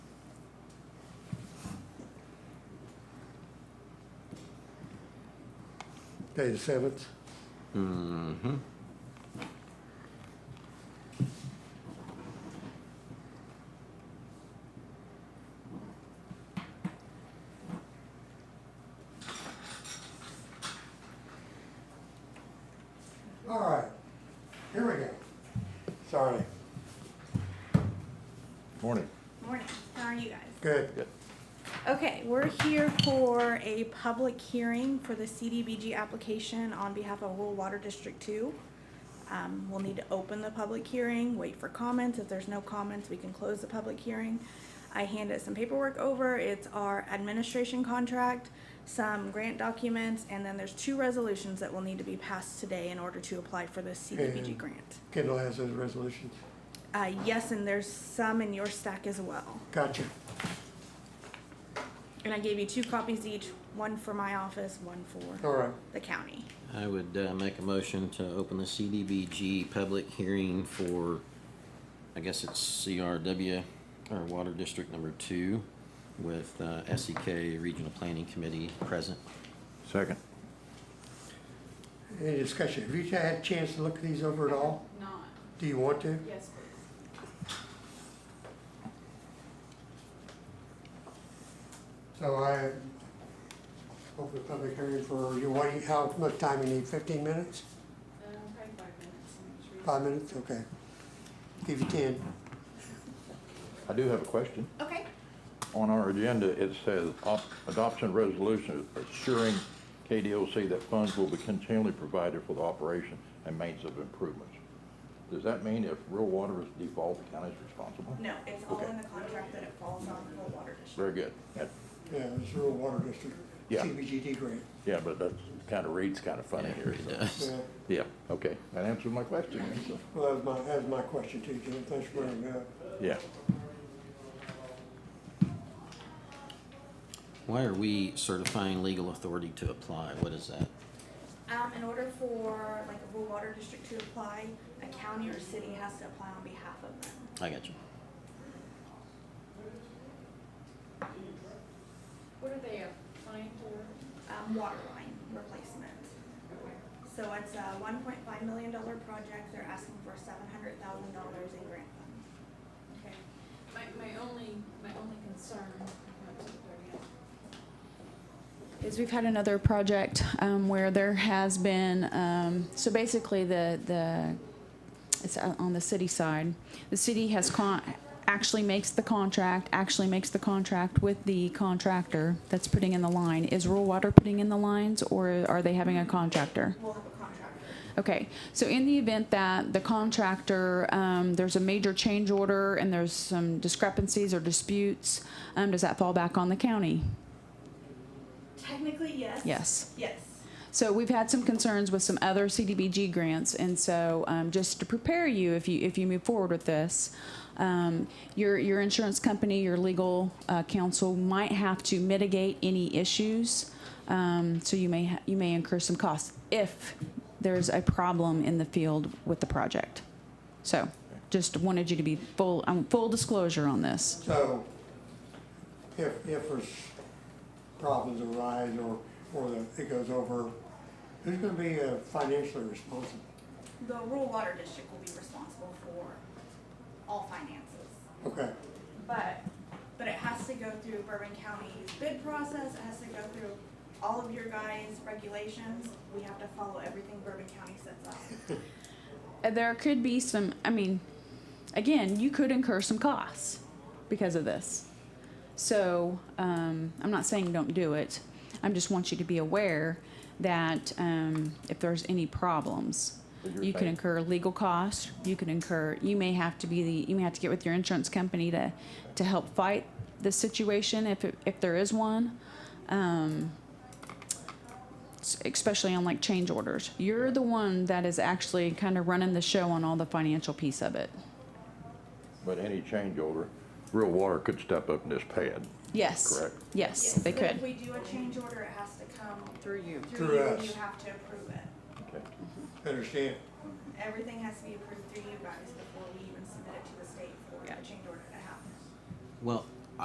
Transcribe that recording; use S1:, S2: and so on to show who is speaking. S1: Okay, the seventh,
S2: Mm-hmm.
S1: all right, here we go. Sorry,
S3: Morning.
S4: Morning, how are you guys?
S1: good.
S4: Okay, we're here for a public hearing for the CDBG application on behalf of Rural Water District Two. Um, we'll need to open the public hearing, wait for comments. If there's no comments, we can close the public hearing. I handed some paperwork over. It's our administration contract, some grant documents, and then there's two resolutions that will need to be passed today in order to apply for the CDBG
S1: And-
S4: grant.
S1: Kendall has those resolutions.
S4: Uh, yes, and there's some in your stack as well.
S1: Gotcha.
S4: And I gave you two copies each, one for my office, one
S1: All
S4: for
S1: right,
S4: the county.
S2: I would uh, make a motion to open the CDBG public hearing for, I guess it's CRW, or Water District Number Two, with uh, SEK Regional Planning Committee present.
S3: Second.
S1: any discussion? Have you had a chance to look these over at all?
S5: Not,
S1: Do you want to?
S5: yes, please.
S1: So I open the public hearing for, you, what, do you- how much time you need, fifteen minutes?
S5: Um, probably five minutes. I'm sure.
S1: Five minutes, okay. Give you ten.
S3: I do have a question.
S4: Okay.
S3: On our agenda, it says op- adoption resolution assuring KDOC that funds will be continually provided for the operation and maintenance of improvements. Does that mean if real water is default, the county's responsible?
S4: No, it's all
S3: all
S4: in
S3: in
S4: the contract that it falls on the water district.
S3: Very good. That-
S1: Yeah, it's rural water district.
S3: Yeah.
S1: CBGD grant.
S3: Yeah, but that kind of reads kind of funny here.
S2: It
S3: so-
S2: does.
S1: Yeah,
S3: Yeah, okay. That answers my question. so-
S1: well, that was my, that was my question too, Jim. Thanks for bringing it up.
S3: Yeah.
S2: Why are we certifying legal authority to apply? What is that?
S4: Um, in order for like a rural water district to apply, a county or city has to apply on behalf of them.
S2: I got you.
S5: What are they applying for?
S4: Um, water line replacement. So it's a one point five million dollar project. They're asking for seven hundred thousand dollars in grant funds.
S5: Okay. My, my only, my only concern, I'm not too dirty up.
S6: is we've had another project um, where there has been, um, so basically the, the, it's o- on the city side. The city has con, actually makes the contract, actually makes the contract with the contractor that's putting in the line. Is rural water putting in the lines or are they having a contractor?
S4: We'll have a contractor.
S6: Okay, so in the event that the contractor, um, there's a major change order and there's some discrepancies or disputes, um, does that fall back on the county?
S4: Technically, yes.
S6: Yes.
S4: Yes.
S6: So we've had some concerns with some other CDBG grants, and so um, just to prepare you, if you if you move forward with this, um, your your insurance company, your legal uh, counsel might have to mitigate any issues. Um, so you may ha- you may incur some costs if there's a problem in the field with the project. So just wanted you to be full um, full disclosure on this.
S1: So, if, if there's problems arise or, or the- it goes over, who's gonna be uh, financially responsible?
S4: The rural water district will be responsible for all finances,
S1: Okay,
S4: but, but it has to go through Bourbon County's bid process, it has to go through all of your guys' regulations. We have to follow everything Bourbon County sets up.
S6: Uh, there could be some i mean again you could incur some costs because of this so um, i'm not saying don't do it i just want you to be aware that um, if there's any problems
S3: So you're
S6: you can
S3: saying-
S6: incur legal costs you can incur you may have to be the you may have to get with your insurance company to to help fight this situation if it, if there is one um, s- especially on like change orders. You're the one that is actually kind of running the show on all the financial piece of it.
S3: But any change order, real water could step up and just pay it.
S6: Yes.
S3: Correct.
S6: Yes, they
S4: And If
S6: could.
S4: we do a change order, it has to come
S7: Through you.
S1: Through
S4: through you, and
S1: us.
S4: you have to approve it.
S3: Okay.
S1: understand?
S4: Everything has to be approved through you guys before we even submit it to the state for
S7: Yeah.
S4: a change order to happen.
S2: Well,